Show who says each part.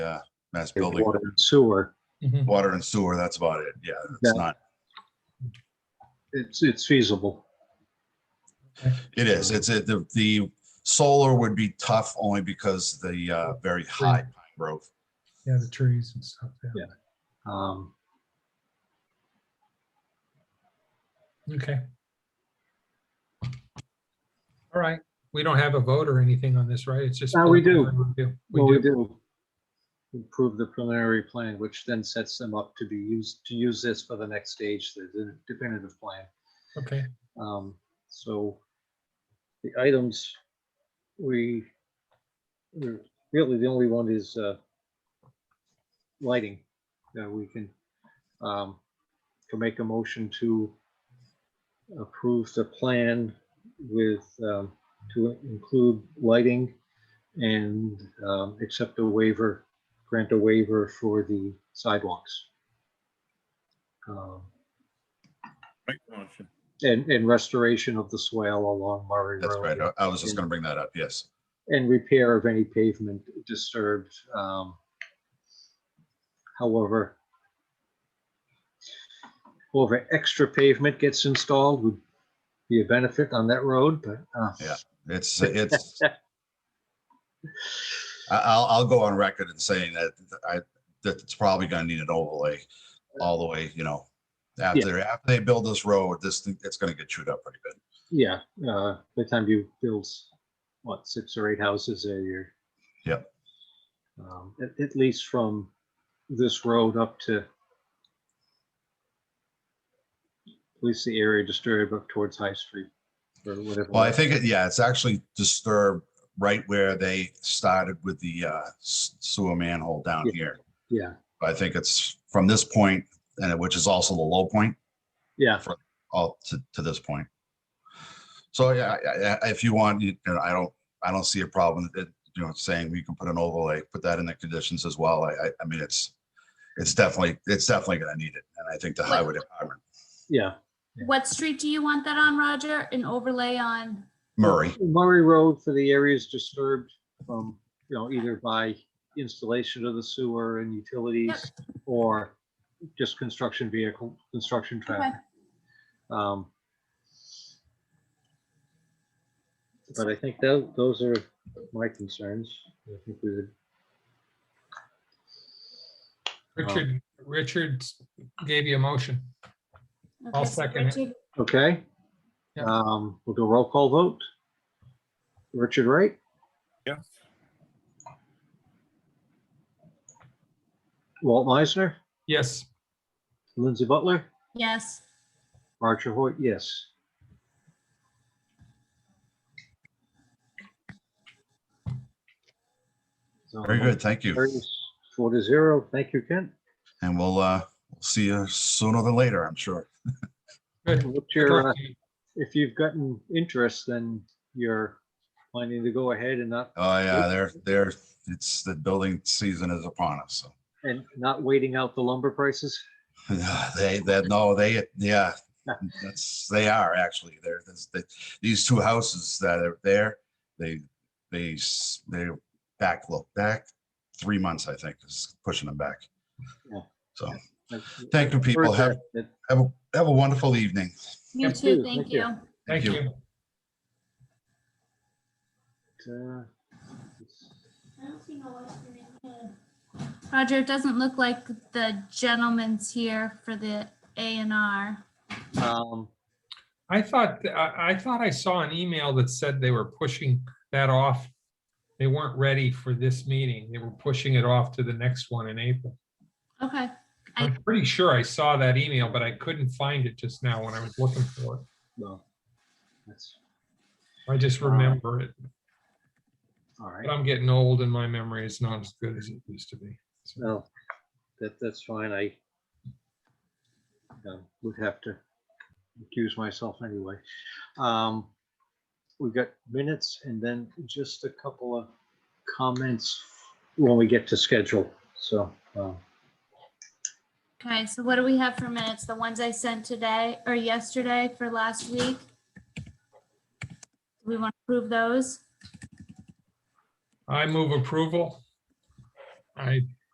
Speaker 1: uh, mass
Speaker 2: There's
Speaker 1: building,
Speaker 2: Water and sewer.
Speaker 3: Mhm.
Speaker 1: water and sewer, that's about it. Yeah,
Speaker 2: Yeah.
Speaker 1: it's not,
Speaker 2: It's, it's feasible.
Speaker 1: it is, it's, a- the, the solar would be tough only because the uh, very high pine growth.
Speaker 3: Yeah, the trees and stuff. Yeah.
Speaker 2: Um,
Speaker 3: Okay. All right. We don't have a vote or anything on this, right? It's just.
Speaker 2: No, we do.
Speaker 3: preliminary review.
Speaker 2: Well, we
Speaker 3: We do.
Speaker 2: do improve the preliminary plan, which then sets them up to be used, to use this for the next stage, the- the definitive plan.
Speaker 3: Okay.
Speaker 2: Um, so the items we, we're- really the only one is, uh, lighting that we can, um, to make a motion to approve the plan with, um, to include lighting and, um, accept a waiver, grant a waiver for the sidewalks. Um,
Speaker 4: Right motion.
Speaker 2: and, and restoration of the swale along Murray
Speaker 1: That's right. uh,
Speaker 2: Road.
Speaker 1: I- I was just gonna bring that up, yes.
Speaker 2: And repair of any pavement disturbed. um, However, however, extra pavement gets installed would be a benefit on that road, but. uh,
Speaker 1: Yeah. It's, it's, I- I'll, I'll go on record in saying that I, that it's probably gonna need an overlay all the way, you know, after, after they build this road, this, thing- it's gonna get chewed up pretty good.
Speaker 2: Yeah, uh, by the time you build, what, six or eight houses there, you're.
Speaker 1: Yep.
Speaker 2: Um, at, at least from this road up to. At least the area disturbed up towards High Street or whatever.
Speaker 1: Well, I think, it- yeah, it's actually disturbed right where they started with the uh, s- sewer manhole down
Speaker 2: Yeah.
Speaker 1: here.
Speaker 2: Yeah,
Speaker 1: But I think it's from this point, and it- which is also the low point,
Speaker 2: yeah,
Speaker 1: all to, to this point. So yeah, I- I- if you want, you know, I don't, I don't see a problem that, you know, saying we can put an overlay, put that in the conditions as well. I, I- I mean, it's, it's definitely, it's definitely going to need it. And I think the highway department,
Speaker 2: yeah.
Speaker 5: What street do you want that on, Roger? An overlay on?
Speaker 1: Murray,
Speaker 2: Murray Road for the areas disturbed from, you know, either by installation of the sewer and utilities or just construction vehicle, construction traffic. Um, But I think tho- those are my concerns. I think we would,
Speaker 3: Richard, Richard gave you a motion. I'll
Speaker 5: Okay, so
Speaker 3: second it.
Speaker 5: Richard-
Speaker 2: okay.
Speaker 3: Yeah.
Speaker 2: Um, we'll do a roll call vote. Richard Wright,
Speaker 4: Yes.
Speaker 2: Walt Meisner,
Speaker 3: Yes.
Speaker 2: Lindsay Butler,
Speaker 5: Yes,
Speaker 2: Roger Hoyt, yes. So,
Speaker 1: very good. Thank you.
Speaker 2: carries Four to zero. Thank you, Kent.
Speaker 1: And we'll, uh, we'll see you sooner than later, I'm sure.
Speaker 3: Good.
Speaker 2: What's your, uh, if you've gotten interest, then you're planning to go ahead and not,
Speaker 1: Oh, yeah, they're, they're, it's, the building season is upon us, so.
Speaker 2: and not waiting out the lumber prices?
Speaker 1: They, that, no, they, yeah, that's, they are actually, they're, this- they- these two houses that are there, they, they, s- they're back, look, back three months, I think, is pushing them back.
Speaker 2: Yeah.
Speaker 1: So,
Speaker 2: Like,
Speaker 1: thank you, people. Have,
Speaker 2: first, that-
Speaker 1: have, a have a wonderful evening.
Speaker 5: you
Speaker 3: Yeah,
Speaker 5: too,
Speaker 2: please,
Speaker 5: thank
Speaker 2: thank you.
Speaker 5: you.
Speaker 3: Thank you.
Speaker 2: that, uh,
Speaker 5: Roger, it doesn't look like the gentleman's here for the A and R.
Speaker 2: uh, um,
Speaker 3: I thought, I, I thought I saw an email that said they were pushing that off. They weren't ready for this meeting. They were pushing it off to the next one in April.
Speaker 5: Okay, I-
Speaker 3: I'm pretty sure I saw that email, but I couldn't find it just now when I was looking for it.
Speaker 2: No. That's,
Speaker 3: I just remember it.
Speaker 2: all right.
Speaker 3: But I'm getting old and my memory is not as good as it used to be. So,
Speaker 2: No, that, that's fine. I um, would have to accuse myself anyway. Um, We've got minutes and then just a couple of comments when we get to schedule. So, um,
Speaker 5: okay, so what do we have for minutes? The ones I sent today or yesterday for last week? Do we want to approve those?
Speaker 3: I move approval. I